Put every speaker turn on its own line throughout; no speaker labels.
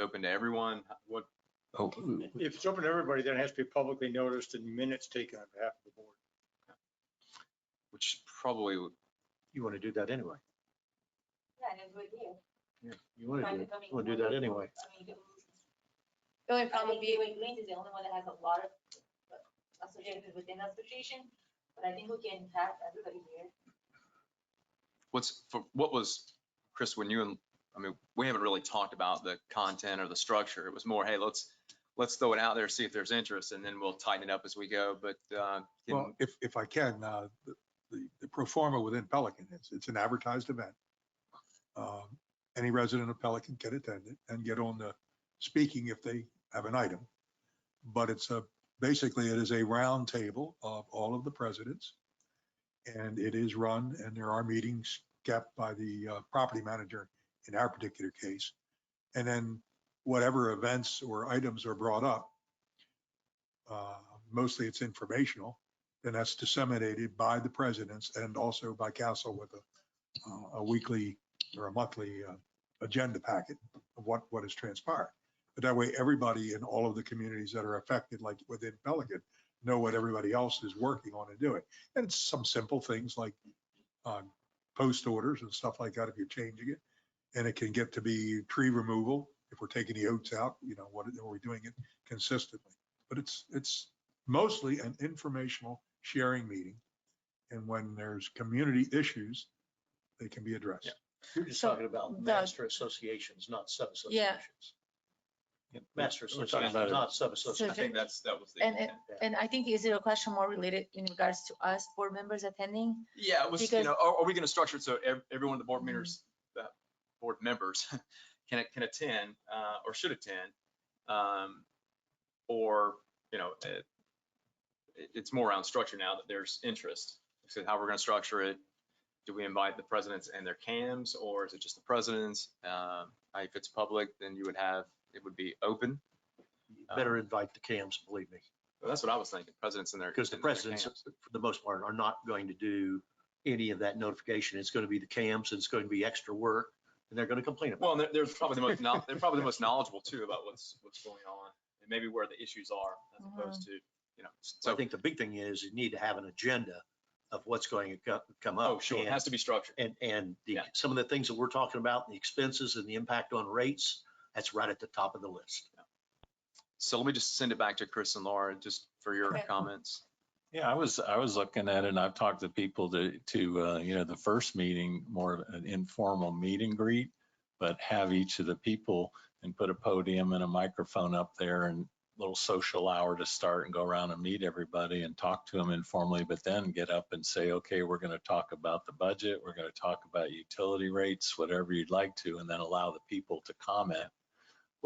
open to everyone? What,
Oh,
If it's open to everybody, then it has to be publicly noticed and minutes taken on behalf of the board.
which probably, would-
You want to do that anyway.
Yeah, and do it here.
You want to do,
Private
it.
domain.
you want to do that anyway.
I mean, you can-
The only
I
problem
think
would be,
Gateway Greens is the only one that has a lot of uh, associated within the association, but I think we can have everybody here.
what's, for- what was, Chris, when you and, I mean, we haven't really talked about the content or the structure. It was more, hey, let's, let's throw it out there, see if there's interest, and then we'll tighten it up as we go, but, uh, can-
Well, if, if I can, uh, the- the, the pro forma within Pelican, it's, it's an advertised event. Um, Any resident of Pelican can attend it and get on the speaking if they have an item. But it's a, basically it is a round table of all of the presidents. And it is run and there are meetings kept by the uh, property manager in our particular case. And then whatever events or items are brought up, uh, mostly it's informational, and that's disseminated by the presidents and also by council with a, uh, a weekly or a monthly uh, agenda packet of what, what has transpired. But that way, everybody in all of the communities that are affected, like within Pelican, know what everybody else is working on and doing. And it's some simple things like um, post orders and stuff like that if you're changing it. And it can get to be tree removal, if we're taking the oats out, you know, what, are we doing it consistently? But it's, it's mostly an informational sharing meeting. And when there's community issues, they can be addressed.
You're just
So,
talking about
the-
master associations, not sub-associations.
Yeah.
Master
We're talking
associations,
about it.
not
I
sub-associations.
think that's, that was the.
And it-
intent.
and I think is it a question more related in regards to us board members attending?
Yeah, it was, you
Because-
know, are, are we gonna structure it so ev- every one of the board members, uh, board members can, can attend, uh, or should attend? Um, or, you know, uh, it, it's more around structure now that there's interest. So how we're gonna structure it, do we invite the presidents and their cams, or is it just the presidents? Um, uh, if it's public, then you would have, it would be open.
You
Uh,
Better invite the cams, believe me,
Well, That's what I was thinking, presidents and their.
because the
and their
presidents,
cams.
for the most part, are not going to do any of that notification. It's going to be the cams, and it's going to be extra work, and they're going to complain about
Well, and they're, they're probably the most, knowl- they're probably the most knowledgeable too about what's, what's going on and maybe where the issues are as opposed
Mm-hmm.
to, you know,
it. I
so,
think the big thing is you need to have an agenda of what's going to co- come up.
oh, sure, it
and-
has to be structured.
And, and the,
Yeah.
some of the things that we're talking about, the expenses and the impact on rates, that's right at the top of the list.
So let me just send it back to Chris and Laura just for your
Okay.
comments.
yeah, I was, I was looking at it and I've talked to people to, to, uh, you know, the first meeting, more of an informal meet and greet, but have each of the people and put a podium and a microphone up there and little social hour to start and go around and meet everybody and talk to them informally, but then get up and say, okay, we're going to talk about the budget. We're going to talk about utility rates, whatever you'd like to, and then allow the people to comment. Uh,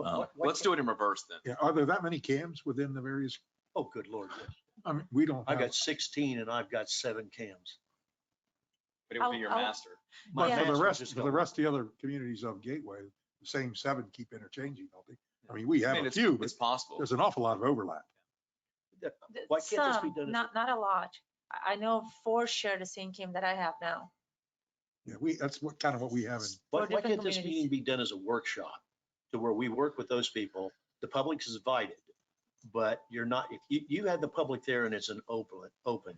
Why- why
Let's do
can't-
it in reverse then.
Yeah, are there that many cams within the various,
Oh, good lord. yes.
I mean, we don't
I
have.
got 16 and I've got seven cams.
But it would be
I'll-
your
I'll-
master.
But for
Yeah.
the
Management
rest,
just
for the
don't-
rest of the other communities of Gateway, the same seven keep interchanging, don't they? I mean, we
I
have
mean,
a
it's-
few, but
It's possible.
there's an awful lot of overlap.
Th-
Why can't this be
Some,
done as a-
Not, not a lot. I, I know four share the same game that I have now.
Yeah, we, that's what, kind of what we have in
Why,
for
why
different
can't this meeting
communities.
be done as a workshop to where we work with those people? The public is invited, but you're not, if you, you had the public there and it's an open, open,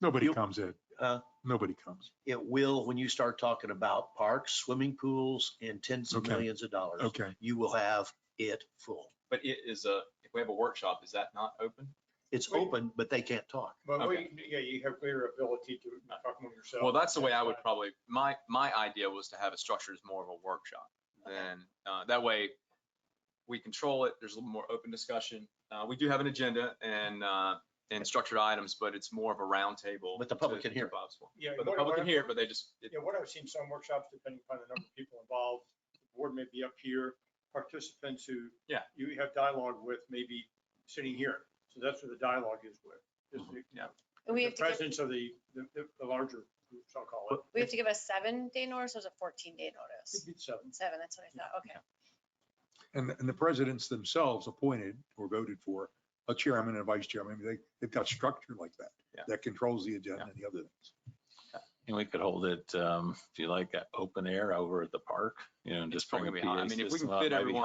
Nobody
You-
comes in.
Uh.
Huh?
Nobody comes.
it will, when you start talking about parks, swimming pools and tens of
Okay.
millions of dollars,
Okay.
you will have it full.
But it is a, if we have a workshop, is that not open?
It's
Wait.
open, but they can't talk.
But we,
Okay.
yeah, you have greater ability to talk among Uh, yourself.
Well, that's the way I would probably, my, my idea was to have it structured as more of a workshop. Then, uh, that way we control it. There's a little more open discussion. Uh, we do have an agenda and, uh, and structured items, but it's more of a roundtable.
But the public
to-
can hear
to
it.
Bob's point.
Yeah,
But the
what-
public can
what-
hear it, but they just, it-
Yeah, what I've seen some workshops, depending upon the number of people involved, the board may be up here, participants who.
Yeah.
You have dialogue with maybe sitting here. So that's where the dialogue is with. is the-
Mm-hmm. yeah.
We
The
have to give,
presence of the, the, the- the larger groups, I'll call it.
we have to give a seven day notice or is it fourteen day notice?
It'd be Seven.
Seven, that's what I thought, okay.
And, and the presidents themselves appointed or voted for a chairman and a vice chairman. I mean, They, they've got structure like that.
Yeah.
That controls the agenda and the other things.
And we could hold it, um, if you like, uh, open air over at the park, you know, and
It's
just bring a
probably gonna be hot.
PA
I mean, if we
system
can
up,
fit
uh,
maybe
everyone